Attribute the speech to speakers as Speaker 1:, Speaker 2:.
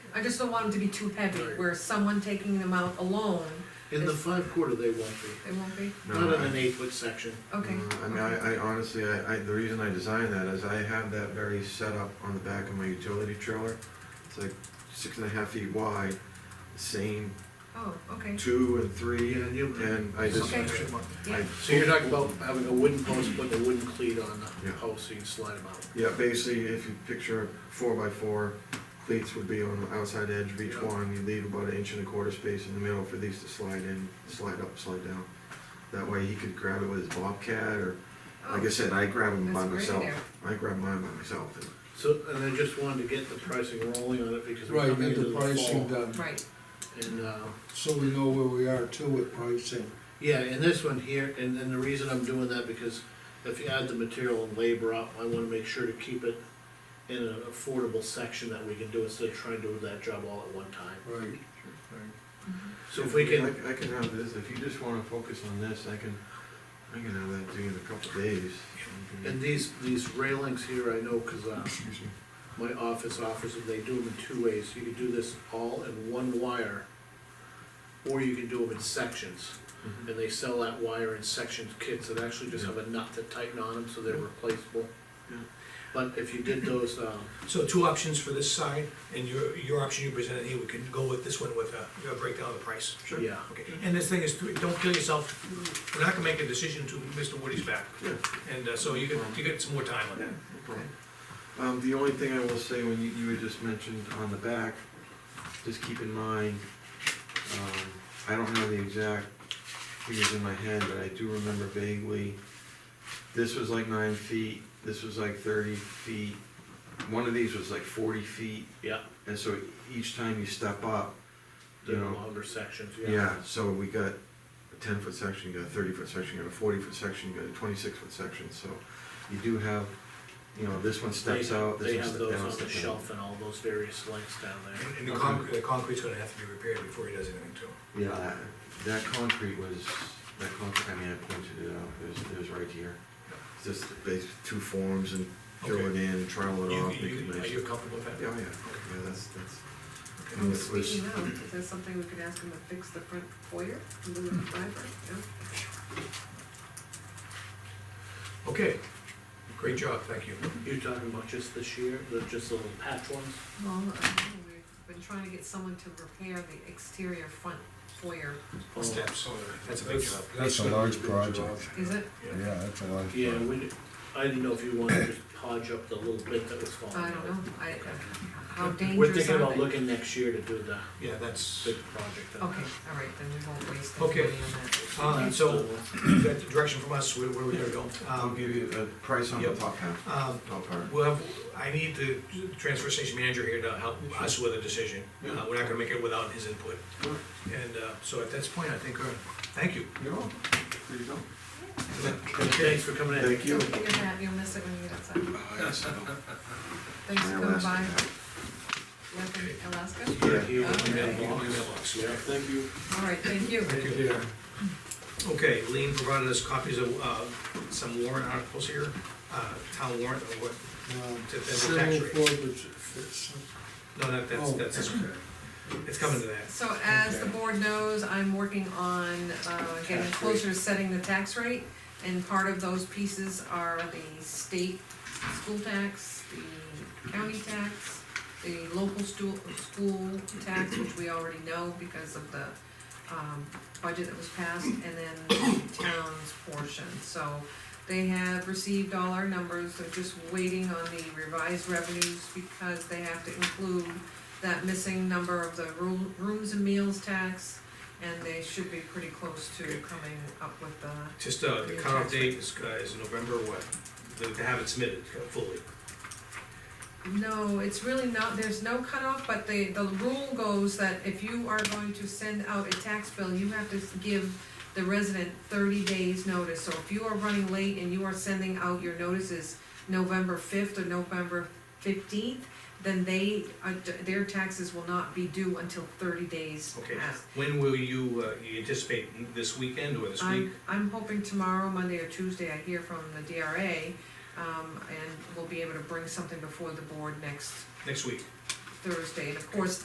Speaker 1: I just don't want them to be too heavy,
Speaker 2: Right.
Speaker 1: where someone taking them out alone,
Speaker 2: In the five quarter, they won't
Speaker 1: it won't be,
Speaker 2: be,
Speaker 3: No,
Speaker 2: not in
Speaker 3: I-
Speaker 2: an eight foot section.
Speaker 1: okay.
Speaker 3: Mm, I mean, I, I honestly, I, I, the reason I designed that is I have that very setup on the back of my utility trailer. It's like six and a half feet wide, same
Speaker 1: Oh, okay,
Speaker 3: two and three,
Speaker 2: Yeah, and you-
Speaker 3: and I just,
Speaker 1: Okay.
Speaker 3: I,
Speaker 1: yeah,
Speaker 2: So you're talking about having a wooden post, putting a wooden cleat on the
Speaker 3: Yeah.
Speaker 2: post, so you can slide them out.
Speaker 3: yeah, basically, if you picture four by four, cleats would be on the outside edge of each
Speaker 2: Yeah.
Speaker 3: one, you leave about an inch and a quarter space in the middle for these to slide in, slide up, slide down. That way he could grab it with his bobcat, or, like I
Speaker 1: oh,
Speaker 3: said, I grab them by
Speaker 1: That's a
Speaker 3: myself,
Speaker 1: great
Speaker 3: I grab mine by myself, and
Speaker 2: So, and I just wanted to get the pricing rolling on it because we're
Speaker 4: Right,
Speaker 2: coming
Speaker 4: get
Speaker 2: into
Speaker 4: the
Speaker 2: the
Speaker 4: pricing
Speaker 2: fall.
Speaker 4: done,
Speaker 1: Oh. right,
Speaker 2: And, uh,
Speaker 4: so we know where we are too with pricing.
Speaker 2: yeah, and this one here, and, and the reason I'm doing that because if you add the material and labor up, I wanna make sure to keep it in an affordable section that we can do instead of trying to do that job all at one time.
Speaker 4: Right, right.
Speaker 2: So if we can,
Speaker 3: I, I can have this, if you just wanna focus on this, I can, I can have that due in a couple days.
Speaker 2: and these, these railings here, I know, cause, uh,
Speaker 3: Excuse me.
Speaker 2: my office offers them, they do them in two ways, you can do this all in one wire, or you can do them in sections,
Speaker 3: Mhm.
Speaker 2: and they sell that wire in sections kits that actually just have a nut to tighten on them, so they're replaceable.
Speaker 3: Yeah.
Speaker 2: But if you did those, uh,
Speaker 5: So two options for this side, and your, your option you presented here, we can go with this one with a, a breakdown of the price.
Speaker 3: Sure.
Speaker 2: yeah,
Speaker 5: Okay, and this thing is, don't kill yourself, we're not gonna make a decision to Mr. Woody's back,
Speaker 3: Yeah,
Speaker 5: and uh, so you get, you get some more time on
Speaker 3: yeah,
Speaker 5: that.
Speaker 3: no problem. Um, the only thing I will say, when you, you had just mentioned on the back, just keep in mind, um, I don't know the exact figures in my head, but I do remember vaguely, this was like nine feet, this was like thirty feet, one of these was like forty feet,
Speaker 2: yeah,
Speaker 3: and so each time you step up,
Speaker 2: the
Speaker 3: you know,
Speaker 2: longer sections, yeah.
Speaker 3: Yeah, so we got a ten foot section, you got a thirty foot section, you got a forty foot section, you got a twenty six foot section, so you do have, you know, this one
Speaker 2: They,
Speaker 3: steps out,
Speaker 2: they
Speaker 3: this
Speaker 2: have
Speaker 3: one steps
Speaker 2: those
Speaker 3: down.
Speaker 2: on the
Speaker 3: steps down.
Speaker 2: shelf and all those various lengths down there.
Speaker 5: And- And the concrete, the concrete's gonna have to be repaired before he does anything to it.
Speaker 3: Yeah, that- that concrete was, that concrete, I mean, I pointed it out, it was, it was right here. It's Just base, two forms and throw it
Speaker 5: Okay.
Speaker 3: in, and trowel it
Speaker 5: You-
Speaker 3: off, make
Speaker 5: you-
Speaker 3: it
Speaker 5: you- Are
Speaker 3: nice.
Speaker 5: you comfortable with that?
Speaker 3: Yeah, oh, yeah, yeah, that's, that's,
Speaker 5: Okay.
Speaker 3: and this was,
Speaker 1: speaking of, is that something we could ask them to fix the front foyer, the little driver, yeah?
Speaker 5: Okay, great job, thank you.
Speaker 2: You're talking about just this year, the, just the little patch ones?
Speaker 1: Well, I don't know, we've been trying to get someone to repair the exterior front foyer,
Speaker 5: Steps, that's a big job.
Speaker 6: That's a large project,
Speaker 1: is it?
Speaker 5: Yeah.
Speaker 6: yeah, that's a large
Speaker 2: Yeah,
Speaker 6: project.
Speaker 2: we, I didn't know if you wanted to just podge up the little bit that was falling out.
Speaker 1: I don't know, I,
Speaker 2: Okay.
Speaker 1: how dangerous
Speaker 2: We're
Speaker 1: are
Speaker 2: thinking about
Speaker 1: they?
Speaker 2: looking next year to do the
Speaker 5: Yeah, that's,
Speaker 2: big project. on
Speaker 1: Okay, all right, then we won't waste any
Speaker 5: Okay.
Speaker 1: money on that.
Speaker 2: that.
Speaker 5: uh, so, you got the direction from us, where, where we gotta go?
Speaker 3: I'll
Speaker 5: Um,
Speaker 3: give you a price on the
Speaker 5: Yep.
Speaker 3: top half,
Speaker 5: um,
Speaker 3: top part.
Speaker 5: Well, have- I need the transfer station manager here to help us with a decision.
Speaker 3: Yeah.
Speaker 5: Uh, We're not gonna make it without his input.
Speaker 3: Sure.
Speaker 5: And uh, so at this point, I think, uh, thank you.
Speaker 3: You're welcome, there you go.
Speaker 2: Thanks for coming in.
Speaker 3: Thank you.
Speaker 1: Don't forget that, you'll miss it when you get outside.
Speaker 3: Oh, yes, I know.
Speaker 1: Thanks for coming by,
Speaker 3: Yeah.
Speaker 1: welcome to Alaska.
Speaker 2: Thank you.
Speaker 1: Okay.
Speaker 5: Yeah, my mailbox.
Speaker 2: Yeah, thank you.
Speaker 1: All right, thank you.
Speaker 5: Thank you. Okay, Lean provided us copies of uh, some warrant articles here, uh, town warrant, or what,
Speaker 4: Um,
Speaker 5: To- to the tax
Speaker 4: Several
Speaker 5: rate.
Speaker 4: forwards, it's-
Speaker 5: no, that- that's,
Speaker 4: Oh.
Speaker 5: that's, it's coming to that.
Speaker 1: So as the
Speaker 4: Okay.
Speaker 1: board knows, I'm working on, uh, getting
Speaker 4: Tax
Speaker 1: closer to setting the tax rate. And part of those pieces are the state school tax, the county tax, the local stu- school tax, which we already know because of the, um, budget that was passed, and then the town's portion, so. They have received all our numbers, they're just waiting on the revised revenues because they have to include that missing number of the room, rooms and meals tax, and they should be pretty close to coming up with the,
Speaker 5: Just uh, the cutoff date is, uh, is November what, The- to have it submitted fully.
Speaker 1: no, it's really not, there's no cutoff, but the, the rule goes that if you are going to send out a tax bill, you have to give the resident thirty days' notice, so if you are running late and you are sending out your notices November fifth or November fifteenth, then they, uh, their taxes will not be due until thirty days
Speaker 5: Okay.
Speaker 1: pass.
Speaker 5: When will you, uh, you anticipate this weekend or this week?
Speaker 1: I'm, I'm hoping tomorrow, Monday or Tuesday, I hear from the DRA, um, and we'll be able to bring something before the board next
Speaker 5: Next week?
Speaker 1: Thursday. And of course,